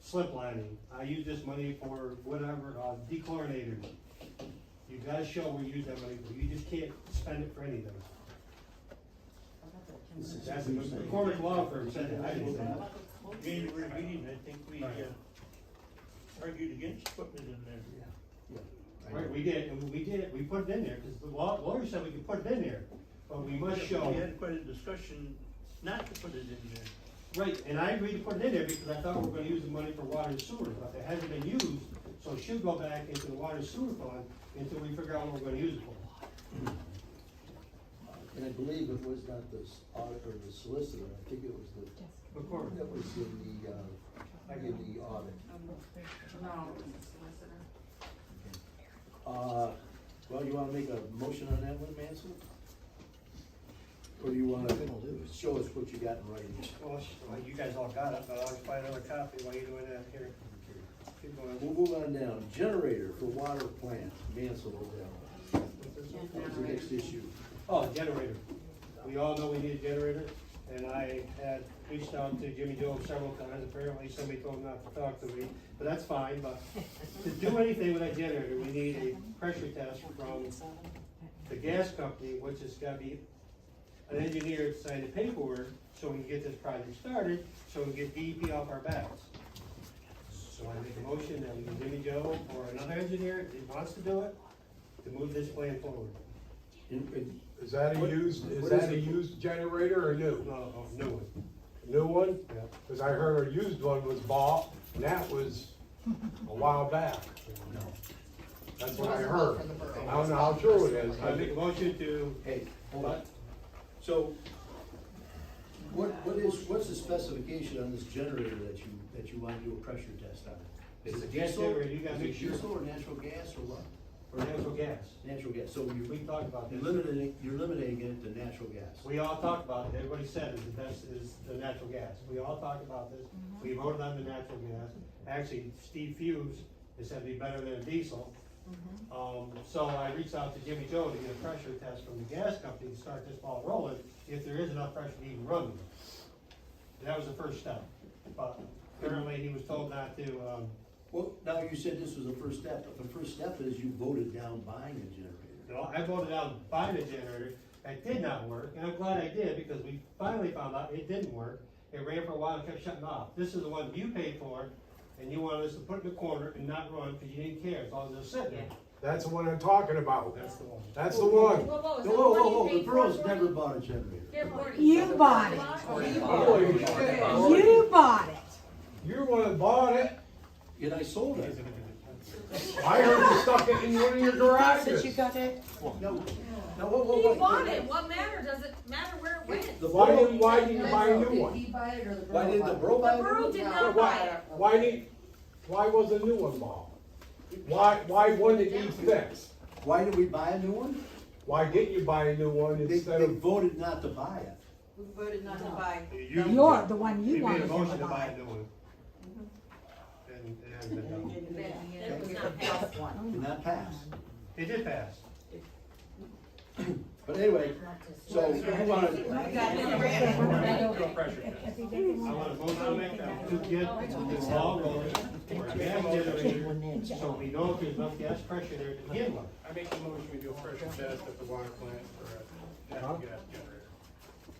slip lining. I use this money for whatever, uh, dechlorinator. You gotta show we use that money, for. you just can't spend it for anything. That's, the McCormick Law Firm said that, I didn't say that. January meeting, I think we, uh, Right. argued against putting it in there. Right, we did, and we did, we put it in there, cause the law, lawyer said we could put it in there, but we must show. We had quite a discussion not to put it in there. Right, and I agreed to put it in there because I thought we were gonna use the money for water and sewer, but it hasn't been used, so it should go back into the water and sewer fund until we figure out what we're gonna use it for. And I believe it was not the s- auditor, the solicitor, I think it was the, McCormick. that was in the, uh, in the audit. No, it's a solicitor. Uh, well, you wanna make a motion on that one, Mansell? Or do you wanna show us what you got in writing? Well, sh- well, you guys all got it, but I'll just buy another copy while you're doing that here. Keep We'll going. move on down, generator for water plant, Mansell over that one. That was the next issue. Oh, generator. We all know we need a generator, and I had reached out to Jimmy Joe several times, apparently somebody told him not to talk to me, but that's fine, but to do anything with that generator, we need a pressure test from the gas company, which has gotta be an engineer to sign the paperwork, so we can get this project started, so we can get DEP off our backs. So I make a motion that we can Jimmy Joe or another engineer that wants to do it, to move this plan forward. And- and Is that a What- used, is what is that a it? used generator or Uh, new? No, no, no. New one? Yeah. Cause I heard a used one was bought, and that was a while back. That's what I heard. I don't know how true it is. I make a motion to, Hey, hold on. So, what, what is, what's the specification on this generator that you, that you wanna do a pressure test on? It's Is a it gas diesel? generator, you gotta Is make it sure. Diesel or natural gas or what? for natural gas. Natural gas, so We you're, talked about you're this. limiting, you're limiting it to natural gas. We all talked about it. Everybody said is the best is the natural gas. We all talked about this. We voted on the natural gas. Actually, Steve Fuse has said it'd be better than diesel. Um, so I reached out to Jimmy Joe to get a pressure test from the gas company to start this ball rolling, if there is enough pressure to even run. this. That was the first step, but apparently he was told not to, um, Well, now you said this was the first step, but the first step is you voted down buying a generator. You know, I voted out buying the generator, that did not work, and I'm glad I did, because we finally found out it didn't work. It ran for a while and kept shutting off. This is the one you paid for, and you wanted us to put it in the corner and not run, because you didn't care, as long as it was sitting there. That's the one I'm talking about. That's the one. That's the one. Whoa, whoa, is Whoa, that whoa, the whoa, one whoa, you the paid for? borough's never bought a generator. You bought it. You bought it. You're the one that bought it. And I sold it. I heard you stuck it in one of your garages. Since you got it. No, no, whoa, whoa, He wait. bought it, what matter, does it matter where it went? The The Why borough, did, why did you buy a new one? why did the borough buy it? borough did not buy Why, it. why did, why was a new one bought? Why, why one that needs fixed? Why did we buy a new one? Why didn't you buy a new one They, instead they of voted not to buy it. We voted not to buy. You- You're the one We you made a wanted motion to to buy a buy. new one. And, Mm-hmm. and it hasn't been done. That was not passed. Did not pass. It did pass. But anyway, so who wanted, I want a motion to make that, uh, to get this ball rolling, for a gas generator, so we know if there's enough gas pressure there to begin with. I make the motion we do a pressure test at the water plant for a natural gas generator.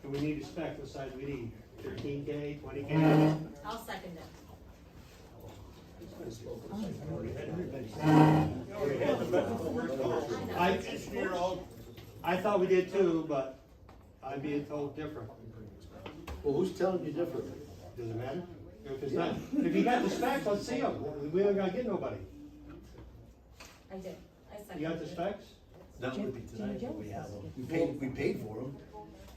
And we need a spec, what size we need, thirteen K, twenty K? I'll second that. I, I thought we did too, but I'm being told different. well, who's telling you differently? Does it matter? If it's not, if you got the specs, let's see them. We ain't gonna get nobody. I did, I seconded. You got the it. specs? That would be tonight, but we have them. We paid, we paid for them.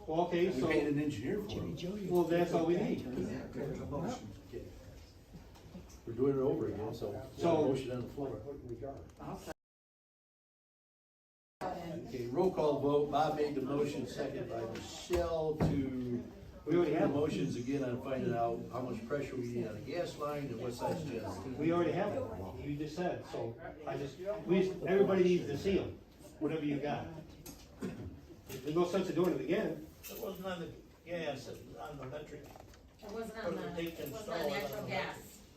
Well, okay, We so, paid an engineer for them. well, that's all we need. We're doing it over again, so, So- motion on the floor. Okay, roll call vote. Bob made the motion, second by Michelle to We already have them. Motion's again on finding out how much pressure we need on the gas line and what size generator. We already have it. You just said, so I just, we, everybody needs to see them, whatever you got. There's no sense in doing it again. It wasn't on the gas, it was on the electric. It wasn't on Put it the, in it wasn't on stall. natural gas.